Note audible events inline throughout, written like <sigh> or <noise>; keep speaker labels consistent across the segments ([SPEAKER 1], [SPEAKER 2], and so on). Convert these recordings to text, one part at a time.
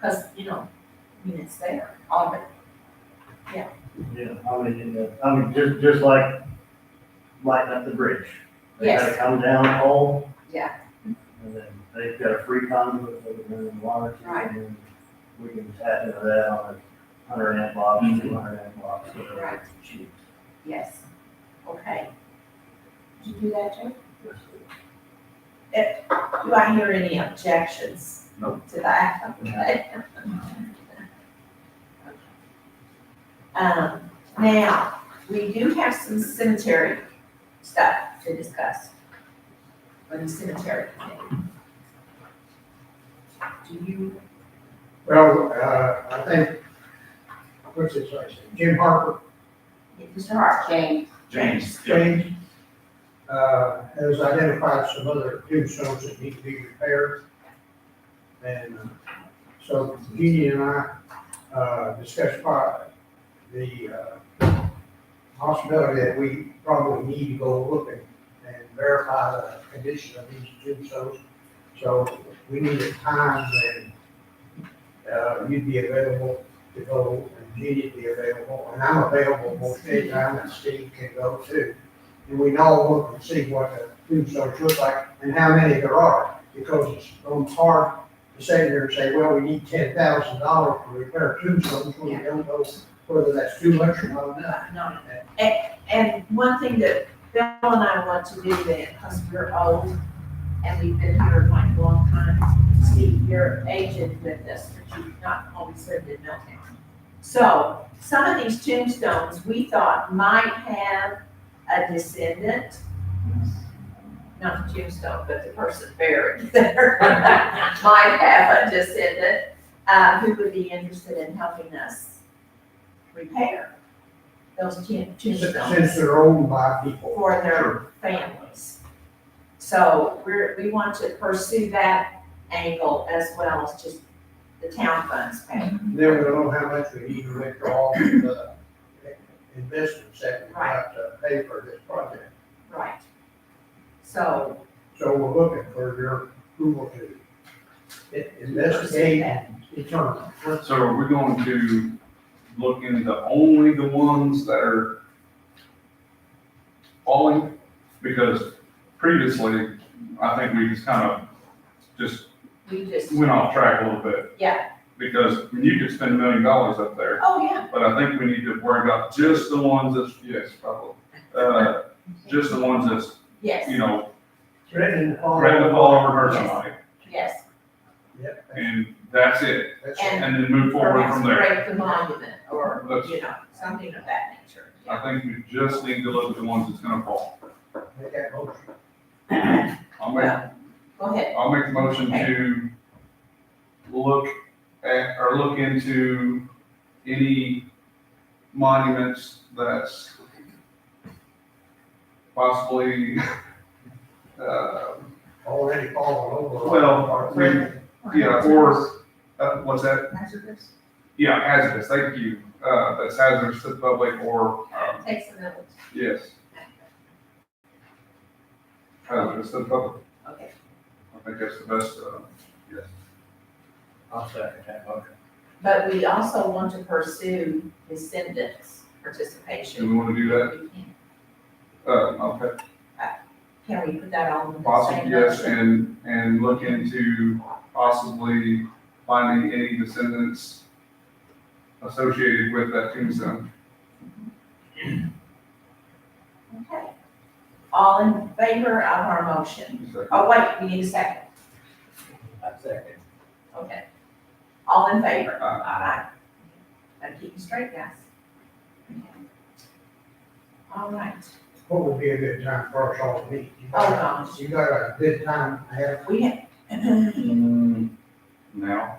[SPEAKER 1] Cause, you know, I mean, it's there, all of it.
[SPEAKER 2] Yeah, I mean, and, uh, I mean, just, just like lighting up the bridge. They gotta
[SPEAKER 1] Yes.
[SPEAKER 2] come down whole.
[SPEAKER 1] Yeah.
[SPEAKER 2] And then they've got a free conduit, they can run the water to,
[SPEAKER 1] Right.
[SPEAKER 2] and then we can tap into that on a hundred amp box, two hundred amp box, whatever.
[SPEAKER 1] Right.
[SPEAKER 2] it's cheap.
[SPEAKER 1] Yes. Okay. Did you do that, Jay?
[SPEAKER 2] Yes,
[SPEAKER 1] Do I hear any objections?
[SPEAKER 2] Nope.
[SPEAKER 1] To that? <laughs> Okay. Um, now, we do have some cemetery stuff to discuss. For the cemetery committee. Do you,
[SPEAKER 3] Well, uh, I think, what's his name, Jim Harper,
[SPEAKER 1] Mr. Hart? James.
[SPEAKER 4] James, yeah,
[SPEAKER 3] James, uh, has identified some other tombstones that need to be repaired. And uh, so Jeannie and I, uh, discussed po- the, uh, possibility that we probably need to go look and, and verify the condition of these tombstones. So we need a time when uh, you'd be available to go, and Jeannie'd be available, and I'm available most anytime, and Steve can go too. And we can all look and see what the tombstones look like and how many there are, because it's so hard to sit there and say, well, we need ten thousand dollars to repair tombstones, when we don't know whether that's too much or not enough.
[SPEAKER 1] No, and, and one thing that Bill and I want to do then, because we're old and we've been here like a long time, Steve, you're aged with us, but you've not always lived in Milltown. So some of these tombstones, we thought might have a descendant. Not the tombstone, but the person buried <laughs> there might have a descendant, uh, who would be interested in helping us repair those tin-
[SPEAKER 3] Since
[SPEAKER 1] tombstones
[SPEAKER 3] they're owned by people.
[SPEAKER 1] for their families. So we're, we want to pursue that angle as well as just the town funds pay.
[SPEAKER 3] Then we don't know how much we need to withdraw from the investments that we have to pay for this project.
[SPEAKER 1] Right. So
[SPEAKER 3] So we're looking for your approval to i- investigate and determine.
[SPEAKER 4] so are we going to look into only the ones that are falling? Because previously, I think we just kind of just
[SPEAKER 1] we just,
[SPEAKER 4] went off track a little bit.
[SPEAKER 1] Yeah.
[SPEAKER 4] Because I mean, you could spend a million dollars up there,
[SPEAKER 1] oh, yeah.
[SPEAKER 4] but I think we need to worry about just the ones that's, yes, probably. Uh, just the ones that's,
[SPEAKER 1] Yes,
[SPEAKER 4] you know,
[SPEAKER 3] Threatening to follow.
[SPEAKER 4] grab the ball over her somebody,
[SPEAKER 1] yes.
[SPEAKER 3] Yep, that's-
[SPEAKER 4] and that's it,
[SPEAKER 3] that's-
[SPEAKER 4] and then move forward
[SPEAKER 1] Perhaps
[SPEAKER 4] from there.
[SPEAKER 1] break the monument or,
[SPEAKER 4] That's-
[SPEAKER 1] you know, something of that nature.
[SPEAKER 4] I think we just need to look at the ones that's gonna fall.
[SPEAKER 3] Make that motion.
[SPEAKER 4] I'll make,
[SPEAKER 1] Well, go ahead.
[SPEAKER 4] I'll make the motion to look at, or look into any monuments that's possibly, uh,
[SPEAKER 3] Already fallen over.
[SPEAKER 4] Well,
[SPEAKER 3] Or threatening.
[SPEAKER 4] yeah, or, uh, what's that?
[SPEAKER 1] Hazardous.
[SPEAKER 4] Yeah, hazardous, thank you, uh, that's hazardous to the public or, um,
[SPEAKER 1] Takes a minute.
[SPEAKER 4] yes, hazardous to the public.
[SPEAKER 1] Okay.
[SPEAKER 4] I think that's the best, uh, yes.
[SPEAKER 2] I'll second that motion.
[SPEAKER 1] But we also want to pursue descendants participation.
[SPEAKER 4] Do we wanna do that?
[SPEAKER 1] We can-
[SPEAKER 4] Uh, okay,
[SPEAKER 1] Can we put that on the
[SPEAKER 4] possible,
[SPEAKER 1] same
[SPEAKER 4] yes,
[SPEAKER 1] motion?
[SPEAKER 4] and, and look into possibly finding any descendants associated with that tombstone.
[SPEAKER 1] Okay. All in favor of our motion?
[SPEAKER 4] So,
[SPEAKER 1] Oh, wait, we need a second.
[SPEAKER 2] I second.
[SPEAKER 1] Okay. All in favor?
[SPEAKER 4] Aye.
[SPEAKER 1] Aye. Gotta keep you straight, guys. Okay. All right.
[SPEAKER 3] What would be a good time for us all to meet? You
[SPEAKER 1] Oh,
[SPEAKER 3] got-
[SPEAKER 1] gosh.
[SPEAKER 3] You got a good time ahead.
[SPEAKER 1] We have,
[SPEAKER 5] Mm,
[SPEAKER 4] Now,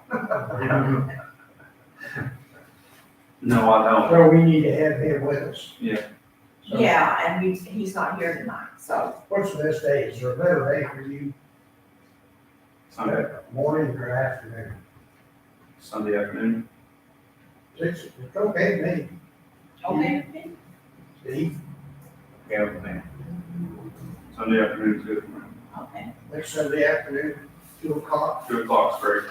[SPEAKER 5] No, I don't.
[SPEAKER 3] So we need to have him with us.
[SPEAKER 5] Yeah.
[SPEAKER 1] <clears throat>
[SPEAKER 3] So
[SPEAKER 1] yeah, and we, he's not here tonight, so
[SPEAKER 3] What's the best day? Is there a better day for you?
[SPEAKER 5] Sunday,
[SPEAKER 3] Morning or afternoon?
[SPEAKER 5] Sunday afternoon.
[SPEAKER 3] Six, it's okay, maybe.
[SPEAKER 4] Mm-hmm.
[SPEAKER 1] okay.
[SPEAKER 3] Steve,
[SPEAKER 5] Yeah, man. Sunday afternoon's good for me.
[SPEAKER 1] Okay.
[SPEAKER 3] next Sunday afternoon, two o'clock.
[SPEAKER 4] two o'clock's great.